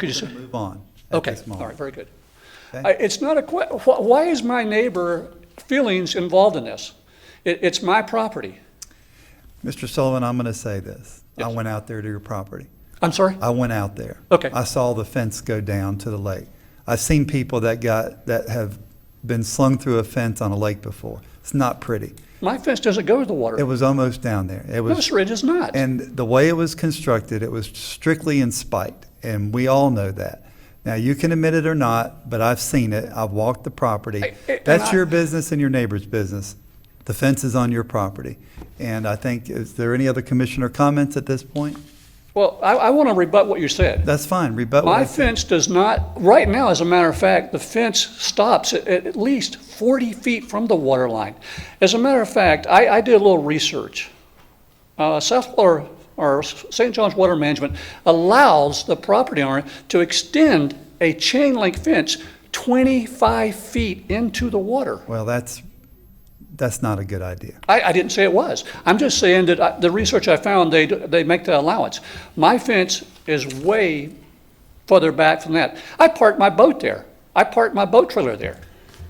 Could you say? Move on at Okay, this all right, moment. very good. Okay. I- It's not a que, wh- why is my neighbor feelings involved in this? It, it's my property. Mr. Sullivan, I'm going to say this. I Yes. went out there to your property. I'm sorry? I went out there. Okay. I saw the fence go down to the lake. I've seen people that got, that have been slung through a fence on a lake before. It's not pretty. My fence doesn't go to the It water. was almost down there. It No, was, sir, it is not. and the way it was constructed, it was strictly in spite, and we all know that. Now, you can admit it or not, but I've seen it. I've walked the property. I- I- and That's I- your business and your neighbor's business. The fence is on your property. And I think, is there any other commissioner comments at this point? Well, I, I want to rebut what you said. That's fine, rebut what I My said. fence does not, right now, as a matter of fact, the fence stops at, at least 40 feet from the water line. As a matter of fact, I, I did a little research. Uh, South Florida, or St. John's Water Management allows the property owner to extend a chain link fence 25 feet into the water. Well, that's, that's not a good idea. I, I didn't say it was. I'm just saying that I- the research I found, they, they make the allowance. My fence is way further back from that. I parked my boat there. I parked my boat trailer there.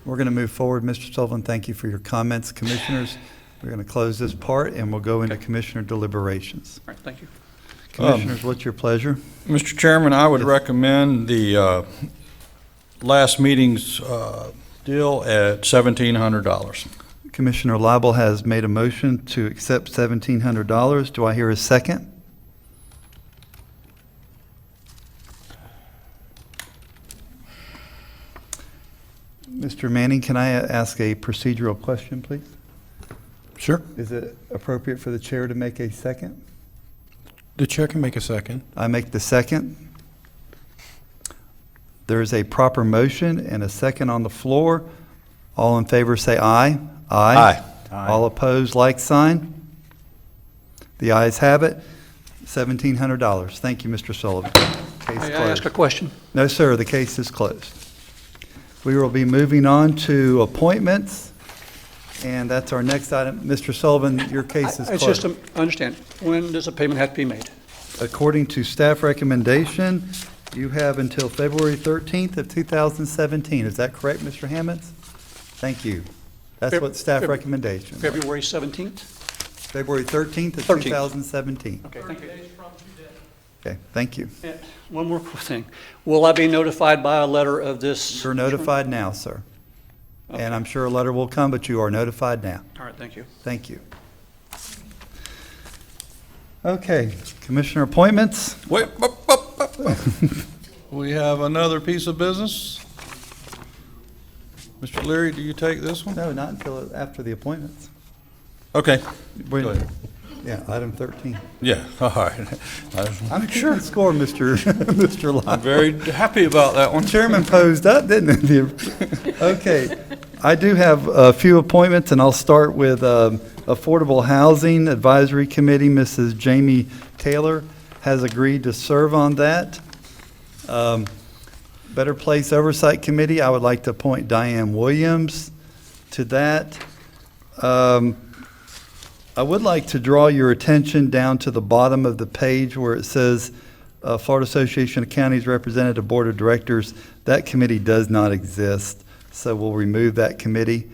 We're going to move forward. Mr. Sullivan, thank you for your comments. Commissioners, we're going to close this part, and we'll go into commissioner deliberations. All right, thank you. Commissioners, what's your pleasure? Mr. Chairman, I would recommend the uh, last meeting's uh, deal at $1,700. Commissioner Lible has made a motion to accept $1,700. Do I hear a second? Mr. Manning, can I ask a procedural question, please? Sure. Is it appropriate for the chair to make a second? The chair can make a second. I make the second. There is a proper motion and a second on the floor. All in favor, say aye. Aye. Aye. All opposed, like sign. The ayes have it. Seventeen hundred dollars. Thank you, Mr. Sullivan. Case May I ask closed. a question? No, sir, the case is closed. We will be moving on to appointments, and that's our next item. Mr. Sullivan, your case is I- closed. It's just, a- I understand. When does a payment have to be made? According to staff recommendation, you have until February 13th of 2017. Is that correct, Mr. Hammond? Thank you. That's Feb- what staff Feb- recommendation. February 17th? February 13th of 13th. 2017. Okay, thank you. Okay, thank you. And One more thing. Will I be notified by a letter of this? You're notified now, sir. And I'm sure a letter will come, but you are notified now. All right, thank you. Thank you. Okay, commissioner appointments. Wait, up, up, up, up. We have another piece of business. Mr. Leary, do you take this one? No, not until after the appointments. Okay, When- Go ahead. Yeah, item 13. yeah, all right. I was- I'm sure. Score, Mr. Mr. I'm Lyon. very happy about that one. Chairman posed up, didn't he? Okay, I do have a few appointments, and I'll start with um, Affordable Housing Advisory Committee. Mrs. Jamie Taylor has agreed to serve on that. Um, Better Place Oversight Committee, I would like to appoint Diane Williams to that. Um, I would like to draw your attention down to the bottom of the page where it says uh, Florida Association of Counties Representative Board of Directors. That committee does not exist, so we'll remove that committee.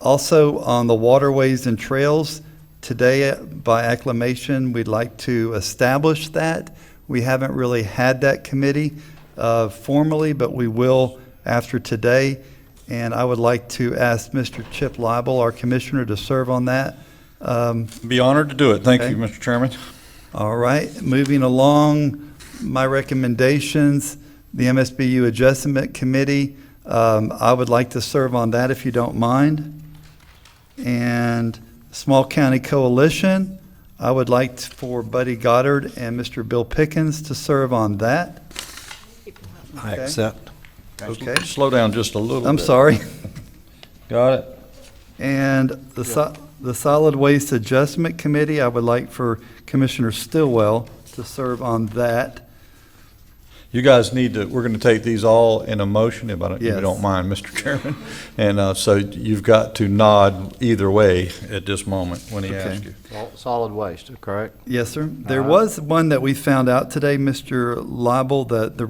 Also, on the waterways and trails, today uh, by acclamation, we'd like to establish that. We haven't really had that committee uh, formally, but we will after today. And I would like to ask Mr. Chip Lible, our commissioner, to serve on that. Um, Be honored to do it. Thank Okay. you, Mr. Chairman. all right, moving along, my recommendations, the MSBU Adjustment Committee, um, I would like to serve on that if you don't mind. And Small County Coalition, I would like t- for Buddy Goddard and Mr. Bill Pickens to serve on that. I Okay. accept. Okay, Slow down just a little bit. I'm sorry. Got it? And the so, the Solid Waste Adjustment Committee, I would like for Commissioner Stillwell to serve on that. You guys need to, we're going to take these all in a motion, if I don't- if Yes. you don't mind, Mr. Chairman. And uh, so you've got to nod either way at this moment when he Okay. asks you. Sol- Solid waste, correct? Yes, sir. There was one that we found out today, Mr. Lible, that the